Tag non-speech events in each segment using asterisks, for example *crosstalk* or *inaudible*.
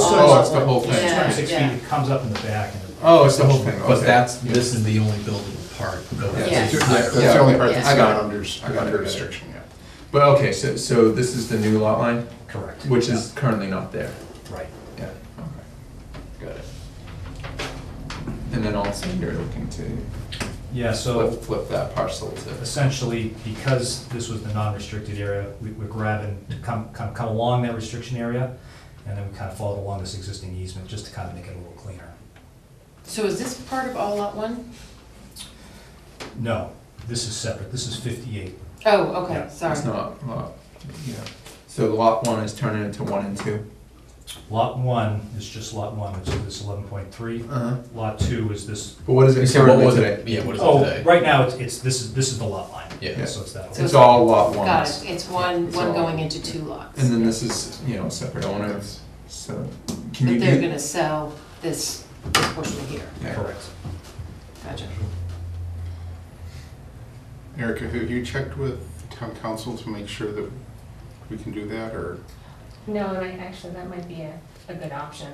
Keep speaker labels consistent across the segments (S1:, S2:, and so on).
S1: Oh, it's the whole
S2: It's
S1: thing.
S2: Twenty-six feet,
S3: Yeah,
S2: it comes up in the back and.
S1: Oh, it's the whole thing,
S4: But
S1: okay.
S4: that's, this is the only buildable part. though.
S1: Yeah.
S3: Yes.
S1: Yeah,
S5: That's the only part
S1: I
S5: that's
S1: got
S5: not
S1: it.
S5: under,
S1: I got it, I got
S5: under
S1: it.
S5: restriction yet.
S1: But, okay, so, so this is the new lot line,
S2: Correct.
S1: which is currently not there?
S2: Yeah, Right.
S1: Yeah, okay, got it. And then also you're looking to
S2: Yeah, so
S1: flip, flip that parcel to,
S2: essentially, because this was the non-restricted area, we- we're grabbing, to come, come, come along that restriction area, and then we kind of followed along this existing easement, just to kind of make it a little cleaner.
S3: so is this part of all lot one?
S2: No, this is separate, this is fifty-eight.
S3: Oh,
S2: Yeah,
S3: okay, sorry.
S1: it's not, lot, yeah. So lot one is turning into one and two?
S2: Lot one is just lot one, which is this eleven point three.
S1: Uh-huh.
S2: Lot two is this,
S1: But what is
S4: You
S1: it
S4: said what
S1: currently
S4: was
S1: today?
S4: it? Yeah, what is it
S2: oh,
S4: today?
S2: right now, it's, it's, this is, this is the lot line.
S4: Yeah.
S2: So it's that.
S3: So-
S2: one.
S1: It's all lot one.
S3: Got it, it's one,
S1: It's all-
S3: one going into two lots.
S1: And then this is, you know, separate owners, so can you
S3: But they're
S1: do?
S3: gonna sell this this portion here,
S1: Yeah.
S2: Correct.
S3: gotcha.
S5: Erica, have you checked with town council to make sure that we can do that, or?
S6: No, and I, actually, that might be a, a good option,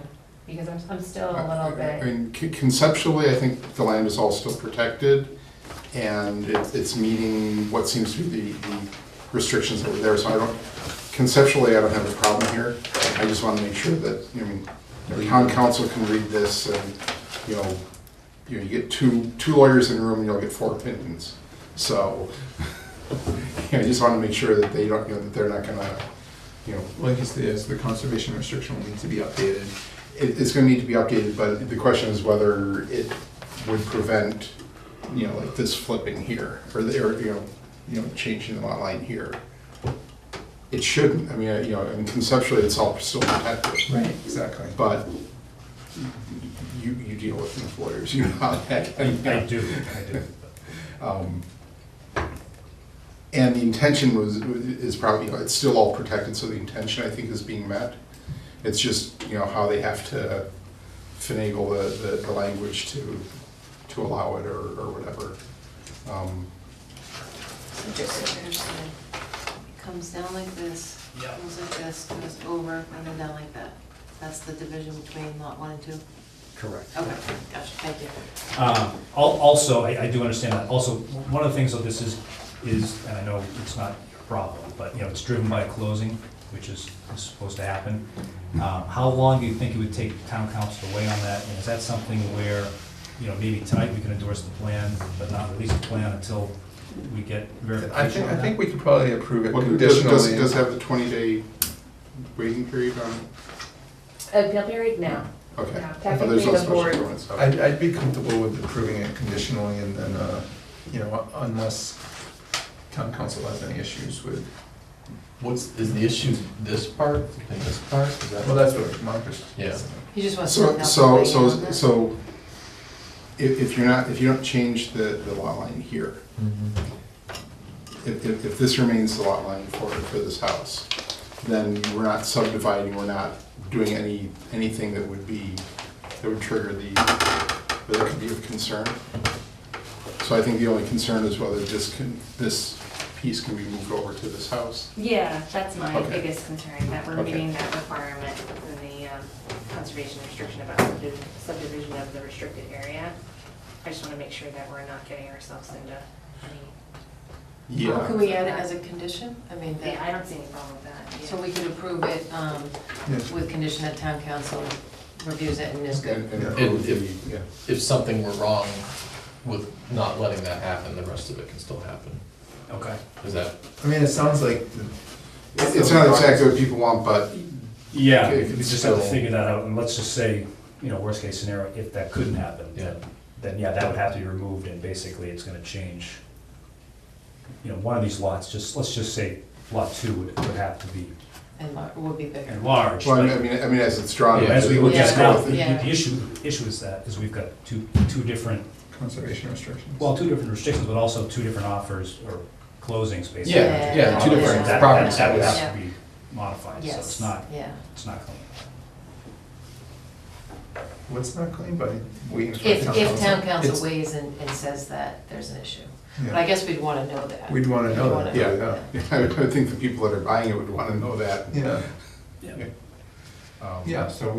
S6: because I'm, I'm still a
S5: I-
S6: little
S5: I- I
S6: bit,
S5: mean, con- conceptually, I think the land is all still protected, and it's, it's meeting what seems to be the the restrictions that were there, so I don't, conceptually, I don't have a problem here. I just want to make sure that, I mean, the town council can read this, and, you know, you know, you get two, two lawyers in a room, you'll get four opinions. So, *laughs* you know, I just want to make sure that they don't, you know, that they're not gonna, you know,
S1: Well, I guess the, yes, the conservation restriction will need to be updated.
S5: it, it's gonna need to be updated, but the question is whether it would prevent, you know, like this flipping here, or the, or, you know, you know, changing the lot line here. It shouldn't, I mean, uh, you know, and conceptually, it's all still protected,
S1: Right. Exactly.
S5: but you, you deal with these lawyers, *laughs* you know how that.
S2: I, I do, I do.
S5: Um, And the intention was, is probably, you know, it's still all protected, so the intention, I think, is being met. It's just, you know, how they have to finagle the, the, the language to, to allow it or, or whatever. Um,
S3: So just to understand, it comes down like this,
S2: Yeah.
S3: goes like this, goes over, and then down like that. That's the division between lot one and two?
S2: Correct.
S3: Okay, gotcha, thank you.
S2: Um, al- Also, I I do understand that, also, one of the things of this is, is, and I know it's not your problem, but, you know, it's driven by closing, which is is supposed to happen. Um, How long do you think it would take town council to weigh on that? And is that something where, you know, maybe tonight we can endorse the plan, but not release the plan until we get
S1: I
S2: verification
S1: think,
S2: on
S1: I
S2: that?
S1: think we could probably approve it
S5: Well, does, does,
S1: conditionally.
S5: does have the twenty day waiting period on,
S6: appeal period Uh, now.
S5: okay.
S6: Yeah,
S5: Oh, there's no
S6: technically the
S5: special
S6: board-
S5: permits, okay.
S1: I'd, I'd be comfortable with approving it conditionally and then, uh, you know, unless town council has any issues with,
S4: What's, is the issue this part and this part? Is that-
S1: well, that's what Marcus.
S4: Yeah.
S3: He just wants to know.
S5: So, so, so, so, if, if you're not, if you don't change the, the lot line here, Mm-hmm. if, if, if this remains the lot line for, for this house, then we're not subdividing, we're not doing any, anything that would be, that would trigger the, that could be of concern. So I think the only concern is whether this can, this piece can be moved over to this house.
S6: Yeah, that's my
S5: Okay.
S6: biggest concern, that we're
S5: Okay.
S6: meeting that requirement in the um, conservation restriction about subdi- subdivision of the restricted area. I just want to make sure that we're not getting ourselves into any,
S3: Can we add it as a condition? I mean, that-
S6: yeah, I don't see any problem with that.
S3: so we could approve it um,
S1: Yes.
S3: with condition that town council reviews it and is good.
S5: And, and
S4: Yeah.
S5: approve the- yeah.
S4: If something were wrong with not letting that happen, the rest of it can still happen.
S2: Okay.
S4: Is that,
S1: I mean, it sounds like the
S5: It- It's not exactly what people want, but
S2: Yeah,
S5: Okay,
S2: we just have to
S4: so-
S2: figure that out, and let's just say, you know, worst case scenario, if that couldn't happen, then,
S4: Yeah.
S2: then, yeah, that would have to be removed, and basically, it's gonna change. You know, one of these lots, just, let's just say lot two would, would have to be
S3: And it would be bigger.
S2: enlarged,
S5: Well, I mean- I
S2: but
S5: mean, I mean, as it's drawn.
S4: Yeah,
S2: as we
S5: we'll
S2: look at
S5: just
S2: it
S5: go
S2: now,
S5: with
S2: the,
S5: it.
S3: Yeah.
S2: the issue, issue is that, is we've got two, two different,
S1: conservation restrictions.
S2: well, two different restrictions, but also two different offers or closings, basically.
S4: yeah, yeah, two different
S2: That- that-
S4: properties.
S2: That would
S4: yeah.
S2: have to be modified, so it's
S3: Yes,
S2: not,
S3: yeah.
S2: it's not clean.
S1: What's not clean, but we.
S3: If, if town
S1: It's-
S3: council weighs in and says that, there's an issue. But I
S1: yeah.
S3: guess we'd want to know that.
S1: We'd wanna know
S3: We'd
S1: that,
S3: wanna
S1: yeah,
S5: *laughs* I would I would think the people that are buying it would want to know that.
S1: Yeah,
S5: Um,
S1: yeah, so we